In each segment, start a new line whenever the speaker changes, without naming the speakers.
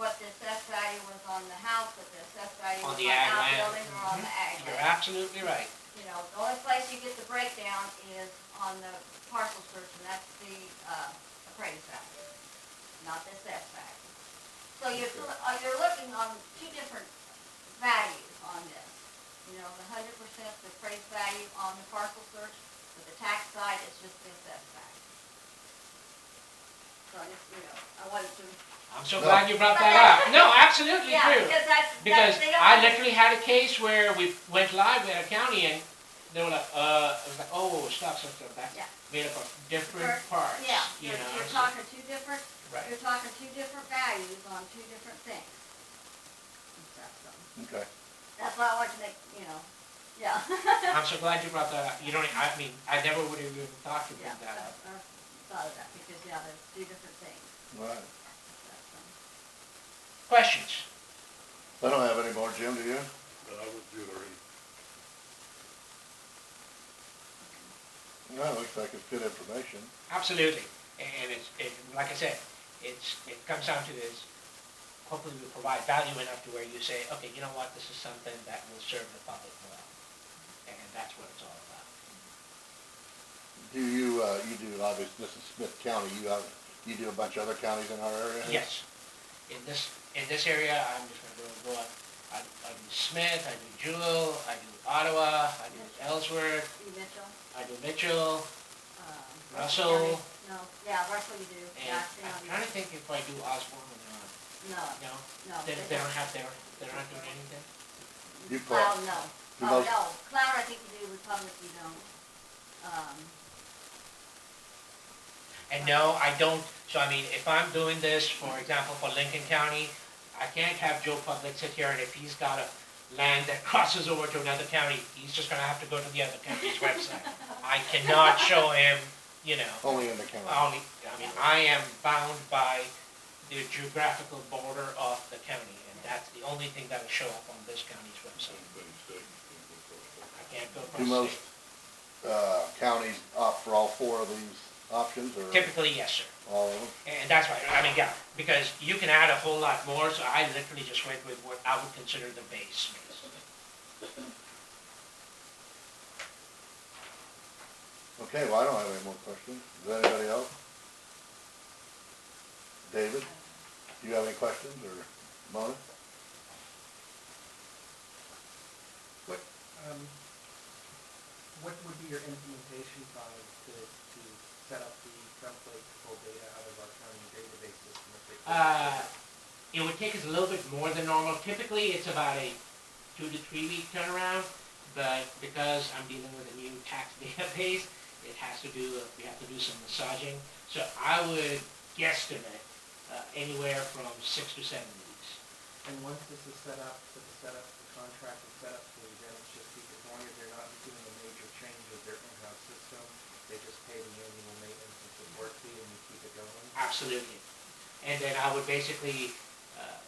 what the assessed value was on the house, what the assessed value was on
On the ag land. Mm-hmm.
outbuilding or on the ag
You're
land.
absolutely right.
You know, the only place you get the breakdown is on the parcel search, and that's the, uh, appraised value, not the assessed value. So you're, still- uh, you're looking on two different values on this. You know, the hundred percent the appraised value on the parcel search, but the tax side is just the assessed value. So I just, you know, I wanted to
I'm so
No.
glad you brought that up. No, absolutely
Yeah,
true.
because that's,
Because
that's, they don't.
I literally had a case where we went live with a county and they were like, uh, it was like, oh, stop, stop, stop, back.
Yeah.
Made up of different
Different-
parts,
Yeah,
you
you're,
know.
you're
so-
talking two different,
Right.
you're talking two different values on two different things. And stuff, so
Okay.
That's why I wanted to make, you know, yeah.
I'm so glad you brought that up. You don't, e, I mean, I never would have even thought to bring
Yeah, I
that
I
up.
thought of that, because, yeah, there's two different things.
All right.
That's, um,
Questions?
I don't have any more, Jim, do you?
but I would do it already.
No, it looks like it's good information.
Absolutely. And it's, it, like I said, it's, it comes down to this, hopefully we provide value enough to where you say, okay, you know what, this is something that will serve the public well. And that's what it's all about.
Do you, uh, you do, obviously, this is Smith County, you have, you do a bunch of other counties in our area?
Yes. In this, in this area, I'm just gonna go, go on, I, I do Smith, I do Jewel, I do Ottawa, I do Ellsworth,
You Mitchell,
I do Mitchell,
um.
Russell.
County- No, yeah, Russell you do,
and uh,
yeah,
I'm
County,
trying to think if I do Osborne or
no,
not, no?
no.
They,
they
they don't
don't.
have, they're, they're not doing anything?
You
Cloud,
probably,
no.
The
Oh,
most-
no, Cloud, I think you do, Republic you don't. Um,
And no, I don't, so I mean, if I'm doing this, for example, for Lincoln County, I can't have Joe Public sit here and if he's got a land that crosses over to another county, he's just gonna have to go to the other county's website. I cannot show him, you know.
only in the county.
only, I mean, I am bound by the geographical border of the county, and that's the only thing that'll show up on this county's website.
Anybody's taking it, but, uh,
I can't go
Do
across the
most,
state.
uh, counties opt for all four of these options, or
Typically, yes, sir.
all of them?
And that's why, I mean, yeah, because you can add a whole lot more, so I literally just went with what I would consider the base.
Okay, well, I don't have any more questions. Does anybody else? David, do you have any questions, or Mona?
Um, what would be your implementation time to, to set up the template to pull data out of our county database system? if they-
Uh, It would take us a little bit more than normal. Typically, it's about a two to three week turnaround, but because I'm dealing with a new tax database, it has to do, uh, we have to do some massaging. So I would guesstimate uh, anywhere from six to seven weeks.
And once this is set up, so the setup, the contract is set up, so then it's just, as long as they're not doing a major change of their in-house system, they just pay the annual maintenance and support fee and we keep it going?
Absolutely. And then I would basically, uh,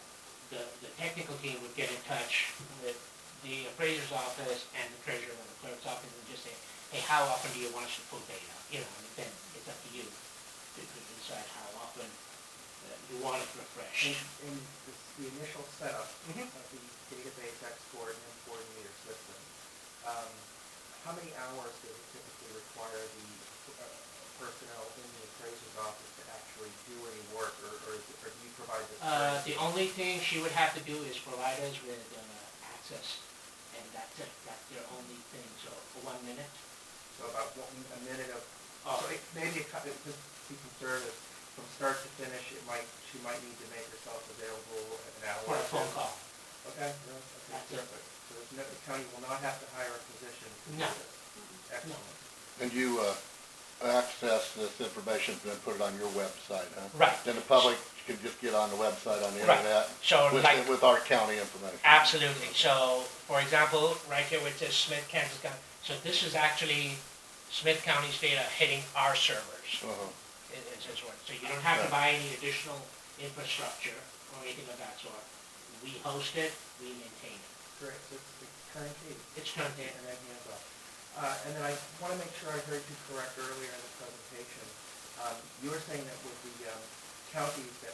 the, the technical team would get in touch with the appraiser's office and the treasurer and the clerk's office and just say, hey, how often do you want us to pull data? You know, and then it's up to you to to decide how often uh, you want it
And,
refreshed.
and this, the initial setup
Mhm.
of the database export and import into your system, um, how many hours does it typically require the uh, personnel in the appraiser's office to actually do any work, or, or is it- or do you provide this?
Uh,
service?
the only thing she would have to do is provide us with, uh, access, and that's it, that's their only thing, so for one minute.
So about one, a minute of,
Oh.
so it, maybe it, cut- it- just to be conservative, from start to finish, it might, she might need to make herself available an hour.
For a
or
phone
two.
call.
Okay, no, okay,
That's it.
perfect. So there's no, the county will not have to hire a physician to do
No.
this. Excellent.
And you, uh, access this information and then put it on your website, huh?
Right.
Then the public can just get on the website on the
Right.
internet
So like,
with, with our county information.
Absolutely. So, for example, right here with this Smith, Kansas County, so this is actually Smith County's data hitting our servers.
Uh-huh.
It- it's- it's what- So you don't have to
Right.
buy any additional infrastructure or anything of that sort. We host it, we maintain it.
Correct, so it's the current case.
It's turned
and
in.
then hands up. Uh, and then I want to make sure I heard you correct earlier in the presentation. Um, you were saying that with the, um, counties that